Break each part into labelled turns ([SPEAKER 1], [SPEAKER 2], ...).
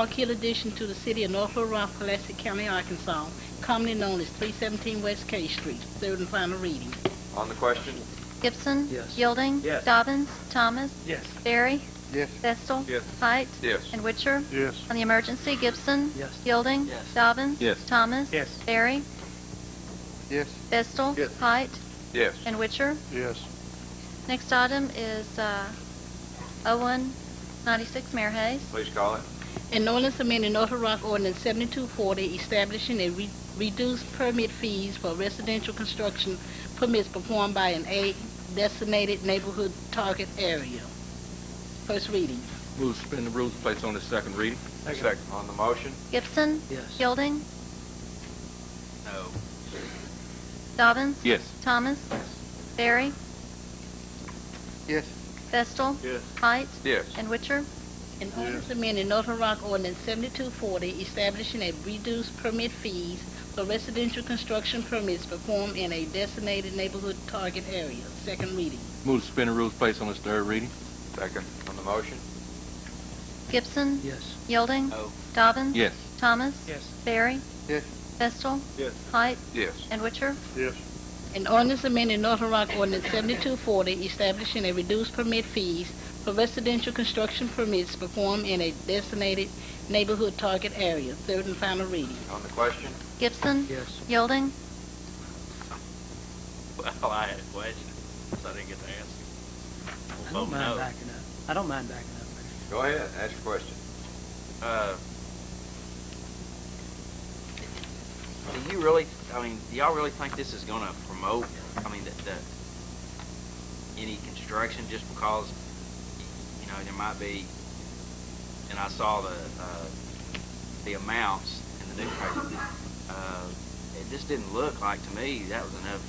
[SPEAKER 1] Park Hill addition to the city of North Little Rock, Pulaski County, Arkansas, commonly known as 317 West K Street. Third and final reading.
[SPEAKER 2] On the question?
[SPEAKER 3] Gibson.
[SPEAKER 4] Yes.
[SPEAKER 3] Yielding.
[SPEAKER 4] Yes.
[SPEAKER 3] Dobbins. Thomas.
[SPEAKER 4] Yes.
[SPEAKER 3] Barry.
[SPEAKER 5] Yes.
[SPEAKER 3] Festal.
[SPEAKER 2] Yes.
[SPEAKER 3] Height.
[SPEAKER 2] Yes.
[SPEAKER 3] And Witcher.
[SPEAKER 5] Yes.
[SPEAKER 3] On the emergency, Gibson.
[SPEAKER 4] Yes.
[SPEAKER 3] Yielding.
[SPEAKER 4] Yes.
[SPEAKER 3] Dobbins.
[SPEAKER 2] Yes.
[SPEAKER 3] Thomas.
[SPEAKER 4] Yes.
[SPEAKER 3] Barry.
[SPEAKER 5] Yes.
[SPEAKER 3] Festal.
[SPEAKER 5] Yes.
[SPEAKER 3] Height.
[SPEAKER 2] Yes.
[SPEAKER 3] And Witcher.
[SPEAKER 5] Yes.
[SPEAKER 3] Next item is uh, 0196, Mayor Hayes.
[SPEAKER 2] Please call it.
[SPEAKER 1] An ordinance amending North Little Rock ordinance 7240 establishing a re- reduced permit fees for residential construction permits performed by an A designated neighborhood target area. First reading.
[SPEAKER 6] Move to suspend the rules and place on its second reading.
[SPEAKER 2] On the motion?
[SPEAKER 3] Gibson.
[SPEAKER 4] Yes.
[SPEAKER 3] Yielding.
[SPEAKER 2] No.
[SPEAKER 3] Dobbins.
[SPEAKER 6] Yes.
[SPEAKER 3] Thomas. Barry.
[SPEAKER 5] Yes.
[SPEAKER 3] Festal.
[SPEAKER 5] Yes.
[SPEAKER 3] Height.
[SPEAKER 2] Yes.
[SPEAKER 3] And Witcher.
[SPEAKER 1] An ordinance amending Northern Rock Ordinance 7240 establishing a reduced permit fees for residential construction permits performed in a designated neighborhood target area. Second reading.
[SPEAKER 6] Move to suspend the rules and place on its third reading.
[SPEAKER 2] Second. On the motion?
[SPEAKER 3] Gibson.
[SPEAKER 4] Yes.
[SPEAKER 3] Yielding.
[SPEAKER 2] No.
[SPEAKER 3] Dobbins.
[SPEAKER 6] Yes.
[SPEAKER 3] Thomas.
[SPEAKER 4] Yes.
[SPEAKER 3] Barry.
[SPEAKER 5] Yes.
[SPEAKER 3] Festal.
[SPEAKER 2] Yes.
[SPEAKER 3] Height.
[SPEAKER 2] Yes.
[SPEAKER 3] And Witcher.
[SPEAKER 5] Yes.
[SPEAKER 1] An ordinance amending Northern Rock Ordinance 7240 establishing a reduced permit fees for residential construction permits performed in a designated neighborhood target area. Third and final reading.
[SPEAKER 2] On the question?
[SPEAKER 3] Gibson.
[SPEAKER 4] Yes.
[SPEAKER 3] Yielding.
[SPEAKER 7] Well, I had a question, so I didn't get to answer.
[SPEAKER 4] I
[SPEAKER 7] Vote
[SPEAKER 4] don't mind
[SPEAKER 7] no.
[SPEAKER 4] backing up. I don't mind backing up.
[SPEAKER 2] Go ahead, ask your question.
[SPEAKER 7] Uh, Do you really, I mean, do y'all really think this is gonna promote, I mean, that, that, any construction just because, you know, there might be, and I saw the, uh, the amounts in the newspaper. Uh, It just didn't look like to me that was enough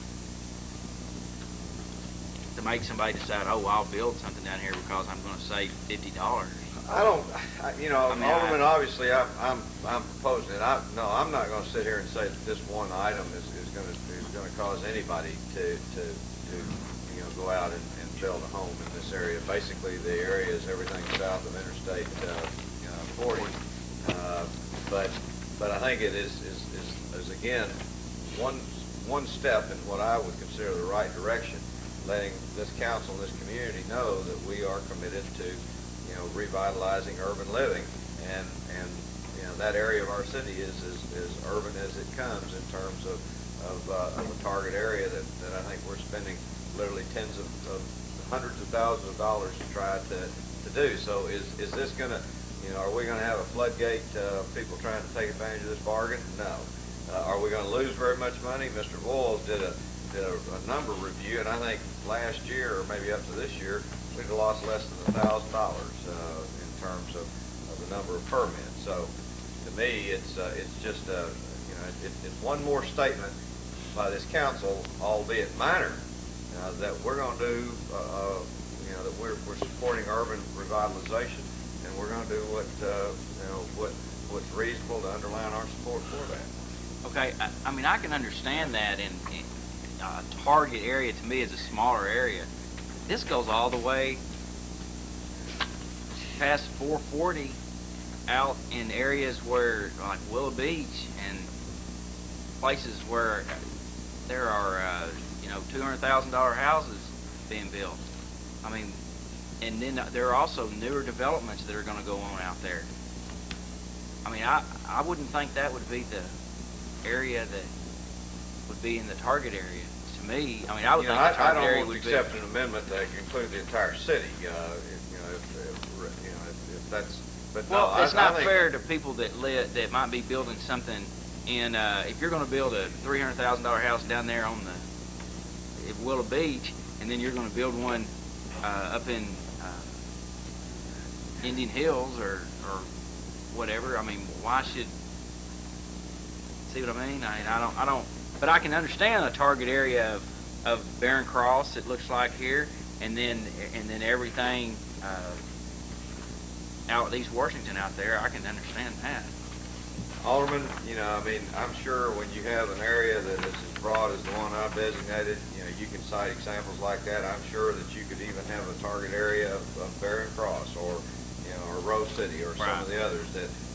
[SPEAKER 7] to make somebody decide, oh, I'll build something down here because I'm gonna save fifty dollars.
[SPEAKER 2] I don't, I- you know,
[SPEAKER 7] I mean, I-
[SPEAKER 2] Alderman, obviously, I'm, I'm, I'm proposing it. I, no, I'm not gonna sit here and say that this one item is, is gonna, is gonna cause anybody to, to, to, you know, go out and, and build a home in this area. Basically, the area is everything south of Interstate, uh, you know, forty. Uh, But, but I think it is, is, is, is again, one, one step in what I would consider the right direction, letting this council, this community know that we are committed to you know, revitalizing urban living. And, and, you know, that area of our city is as, as urban as it comes in terms of, of, uh, of a target area that, that I think we're spending literally tens of, of hundreds of thousands of dollars to try to, to do. So is, is this gonna, you know, are we gonna have a floodgate, uh, of people trying to take advantage of this bargain? No. Uh, are we gonna lose very much money? Mr. Boyles did a, did a, a number review, and I think last year, or maybe up to this year, we'd have lost less than a thousand dollars, uh, in terms of, of the number of permits. So, to me, it's, uh, it's just, uh, you know, it, it's one more statement by this council, albeit minor, uh, that we're gonna do, uh, uh, you know, that we're, we're supporting urban revitalization, and we're gonna do what, uh, you know, what, what's reasonable to underline our support for that.
[SPEAKER 7] Okay, I, I mean, I can understand that in, in a target area to me is a smaller area. This goes all the way past four forty out in areas where, like Willow Beach and places where there are, uh, you know, two hundred thousand dollar houses being built. I mean, and then there are also newer developments that are gonna go on out there. I mean, I, I wouldn't think that would be the area that would be in the target area. To me, I mean, I would
[SPEAKER 2] You know,
[SPEAKER 7] think the
[SPEAKER 2] I, I
[SPEAKER 7] target area
[SPEAKER 2] don't
[SPEAKER 7] would
[SPEAKER 2] want
[SPEAKER 7] be.
[SPEAKER 2] to accept an amendment that could include the entire city, uh, if, you know, if, if, re- you know, if- if that's, but no,
[SPEAKER 7] Well,
[SPEAKER 2] I, I
[SPEAKER 7] it's not
[SPEAKER 2] think-
[SPEAKER 7] fair to people that live, that might be building something in, uh, if you're gonna build a three hundred thousand dollar house down there on the, at Willow Beach, and then you're gonna build one, uh, up in, uh, Indian Hills or, or whatever, I mean, why should, see what I mean? I mean, I don't, I don't, but I can understand the target area of, of Barron Cross, it looks like here, and then, and then everything, uh, out at East Washington out there, I can understand that.
[SPEAKER 2] Alderman, you know, I mean, I'm sure when you have an area that is as broad as the one I've designated, you know, you can cite examples like that. I'm sure that you could even have a target area of, of Barren Cross or, you know, or Rose City or some of
[SPEAKER 7] Right.
[SPEAKER 2] the others that,